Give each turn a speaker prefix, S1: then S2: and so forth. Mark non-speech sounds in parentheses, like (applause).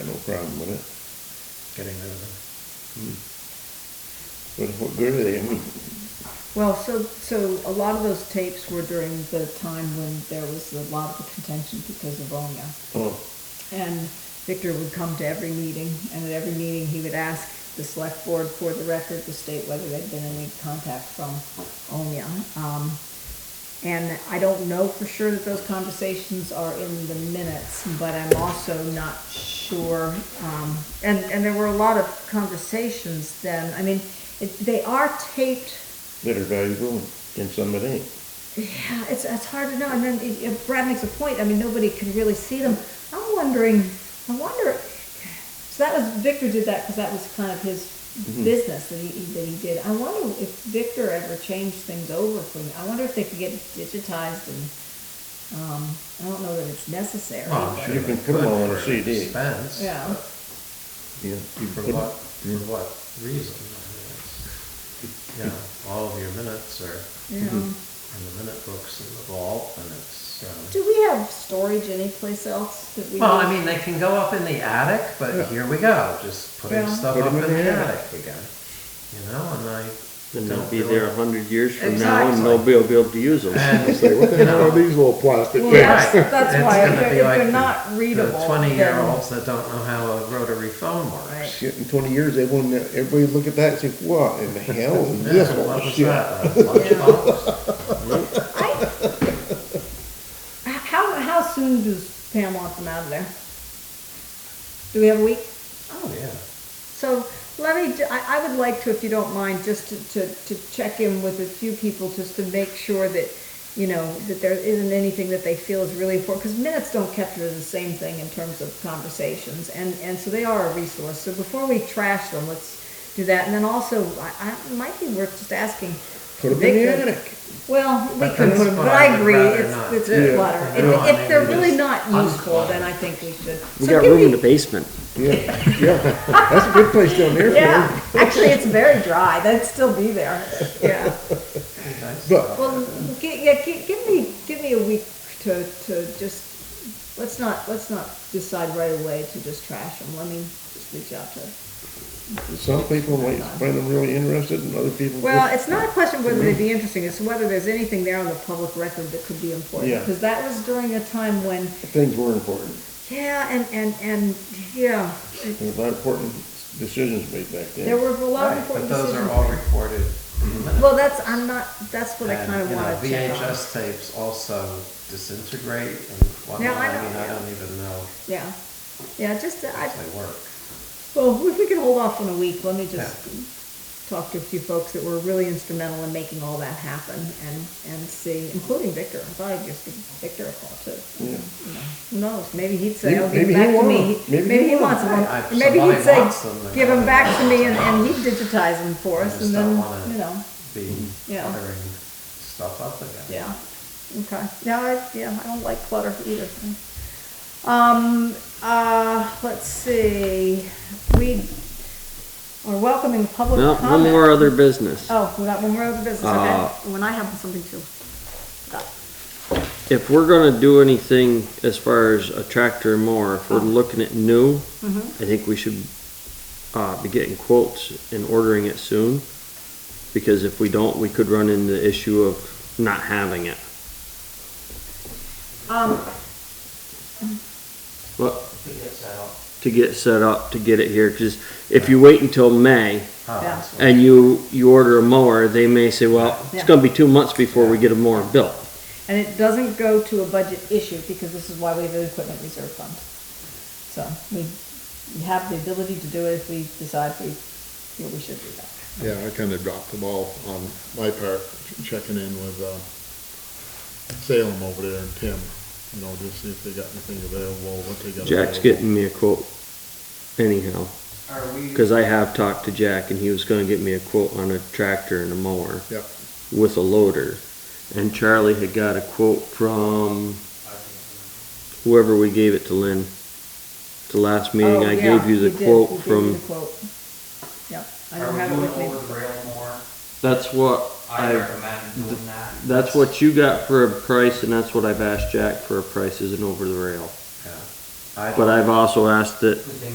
S1: problem with it. Hmm.
S2: getting rid of
S1: But what good are they? I mean,
S3: Well, so, so a lot of those tapes were during the time when there was a lot of contention because of Roma.
S1: oh,
S3: And Victor would come to every meeting, and at every meeting, he would ask the select board for the record to state whether there'd been any contact from Omia. Um, and I don't know for sure that those conversations are in the minutes, but I'm also not sure. Um, and, and there were a lot of conversations then. I mean, it, they are taped
S1: that are valuable and some that ain't.
S3: yeah, it's, it's hard to know. And then if- if Brad makes a point, I mean, nobody can really see them. I'm wondering, I wonder, so that was, Victor did that because that was kind of his business that he, that he did. I wonder if Victor ever changed things over from, I wonder if they could get it digitized and, um, I don't know that it's necessary.
S2: it. Well,
S3: but-
S2: I'm sure
S1: You can
S2: they
S1: put 'em
S2: could
S1: all on a
S2: for
S1: CD.
S2: expense,
S3: Yeah.
S2: but
S1: Yeah. You
S2: For
S1: put-
S2: what, for what reason? I mean, it's- You know, all of your minutes are
S3: Yeah.
S2: in the minute books in the vault and it's, um,
S3: Do we have storage anyplace else that we?
S2: well, I
S3: need?
S2: mean, they can go up in the attic,
S1: Yeah.
S2: but here we go, just putting
S3: Yeah.
S2: stuff
S1: Put
S2: up
S1: 'em
S2: in
S1: in the
S2: the
S1: attic.
S2: attic again. You know, and I.
S4: Then
S2: don't
S4: they'll be
S2: really- (laughs)
S4: there a hundred years from now and nobody will be able to use them.
S2: And
S1: Say, what the
S2: You
S1: hell are
S2: know.
S1: these little plastic
S3: Well,
S1: things?
S3: that's,
S2: Right.
S3: that's
S2: It's
S3: why, if
S2: gonna
S3: they're,
S2: be
S3: if
S2: like
S3: they're
S2: the-
S3: not readable.
S2: The
S3: then-
S2: twenty-year-olds that don't know how a rotary phone
S3: Right.
S2: works.
S1: Shit, in twenty years, they won't, everybody look at that and say, what in the hell is
S2: (laughs) Yeah,
S1: this
S2: what
S1: whole
S2: was
S1: shit?
S2: that, a
S1: (laughs)
S2: lunchbox?
S3: (laughs) I, how, how soon does Pam want them out of there? Do we have a week?
S2: Oh, yeah.
S3: So let me, ju- I, I would like to, if you don't mind, just to, to, to check in with a few people just to make sure that, you know, that there isn't anything that they feel is really important, because minutes don't capture the same thing in terms of conversations, and, and so they are a resource. So before we trash them, let's do that, and then also, I, I, it might be worth just asking.
S1: Put them in the
S3: Victor-
S1: attic.
S3: Well, we
S2: But
S3: could,
S2: that's
S3: but
S2: what
S3: I
S2: I
S3: agree,
S2: would rather
S3: it's,
S2: not
S3: it's
S2: do.
S3: clutter.
S2: You know, I
S3: If, if
S2: mean,
S3: they're
S2: we
S3: really
S2: just
S3: not useful,
S2: unclub.
S3: then I think we should.
S4: We
S3: So
S4: got
S3: give
S4: room in
S3: me-
S4: the basement.
S1: Yeah, yeah, that's a good place down there for them.
S3: Yeah, (laughs) actually, it's very dry, that'd still be there, yeah.
S2: Nice.
S1: But,
S3: Well, gi- yeah, gi- give me, give me a week to, to just, let's not, let's not decide right away to just trash them, let me just reach out to.
S1: some people might find them really interested and other people.
S3: Well, it's not a question of whether they'd be interesting, it's whether there's anything there on the public record that could be important.
S1: Yeah.
S3: Because that was during a time when,
S1: Things were important.
S3: yeah, and, and, and, yeah,
S1: There were a lot of important decisions made back then.
S3: there were a lot of
S2: Right, but
S3: important
S2: those
S3: decisions.
S2: are all recorded minutes.
S3: Well, that's, I'm not, that's what I
S2: And,
S3: kind of
S2: you know,
S3: want to check on.
S2: VHS tapes also disintegrate and
S3: No,
S2: whatnot,
S3: I
S2: I mean,
S3: know.
S2: I don't even know
S3: Yeah, yeah, just, uh, I,
S2: if they work.
S3: Well, if we can hold off on a week, let me just talk to a few folks that were really instrumental in making all that happen and, and see, including Victor. I thought I'd just give Victor a call too.
S1: Yeah.
S3: You know, Who knows, maybe he'd say, oh, give
S1: Maybe- maybe
S3: them
S1: he
S3: back to
S1: won't.
S3: me.
S1: Maybe he
S3: he
S1: won't.
S3: wants one.
S2: I- if
S3: Maybe
S2: somebody
S3: he'd say,
S2: wants them, then
S3: give them
S2: I'll-
S3: back to me and, and he'd digitize them for
S2: I
S3: us
S2: just
S3: and
S2: don't
S3: then,
S2: wanna
S3: you know,
S2: Be
S4: Mm-hmm.
S3: Yeah.
S2: cluttering stuff up again.
S3: yeah. Okay, no, I, yeah, I don't like clutter either. Um, uh, let's see, we are welcoming public
S4: No,
S3: Oh, comment.
S4: one more other business.
S3: Oh, we got one more other business,
S4: Uh,
S3: okay. When I have something too.
S4: If we're gonna do anything as far as a tractor and mower, if we're
S3: Oh.
S4: looking at new,
S3: Mm-hmm.
S4: I think we should, uh, be getting quotes and ordering it soon. Because if we don't, we could run into the issue of not having it.
S3: Um,
S4: But
S2: It gets out.
S4: to get set up, to get it here, cause if you wait until May,
S2: Oh,
S3: Yeah.
S2: that's what-
S4: and you, you order a mower, they may say, well,
S3: Yeah.
S4: it's gonna be two months before we get a mower built.
S3: and it doesn't go to a budget issue because this is why we have an equipment reserve fund. So we, we have the ability to do it if we decide we, feel we should do that.
S5: Yeah, I kind of dropped the ball on my part, checking in with uh, Salem over there and Tim, you know, just see if they got anything available, what they got.
S4: Jack's
S5: available.
S4: getting me a quote anyhow,
S2: Are we,
S4: because I have talked to Jack and he was gonna get me a quote on a tractor and a mower
S5: Yep,
S4: with a loader. And Charlie had got a quote from whoever we gave it to Lynn. The last meeting,
S3: Oh,
S4: I
S3: yeah,
S4: gave you the
S3: did.
S4: quote
S3: You gave me
S4: from,
S3: the quote. Yep, I
S6: Are
S3: don't
S6: we
S3: have it
S6: doing
S3: with me.
S6: over the rail more?
S4: that's what
S6: I
S4: I,
S6: recommend doing that.
S4: that's what you got for a price and that's what I've asked Jack for a price, isn't over the rail.
S2: yeah. I don't
S4: But I've also asked that
S6: Because they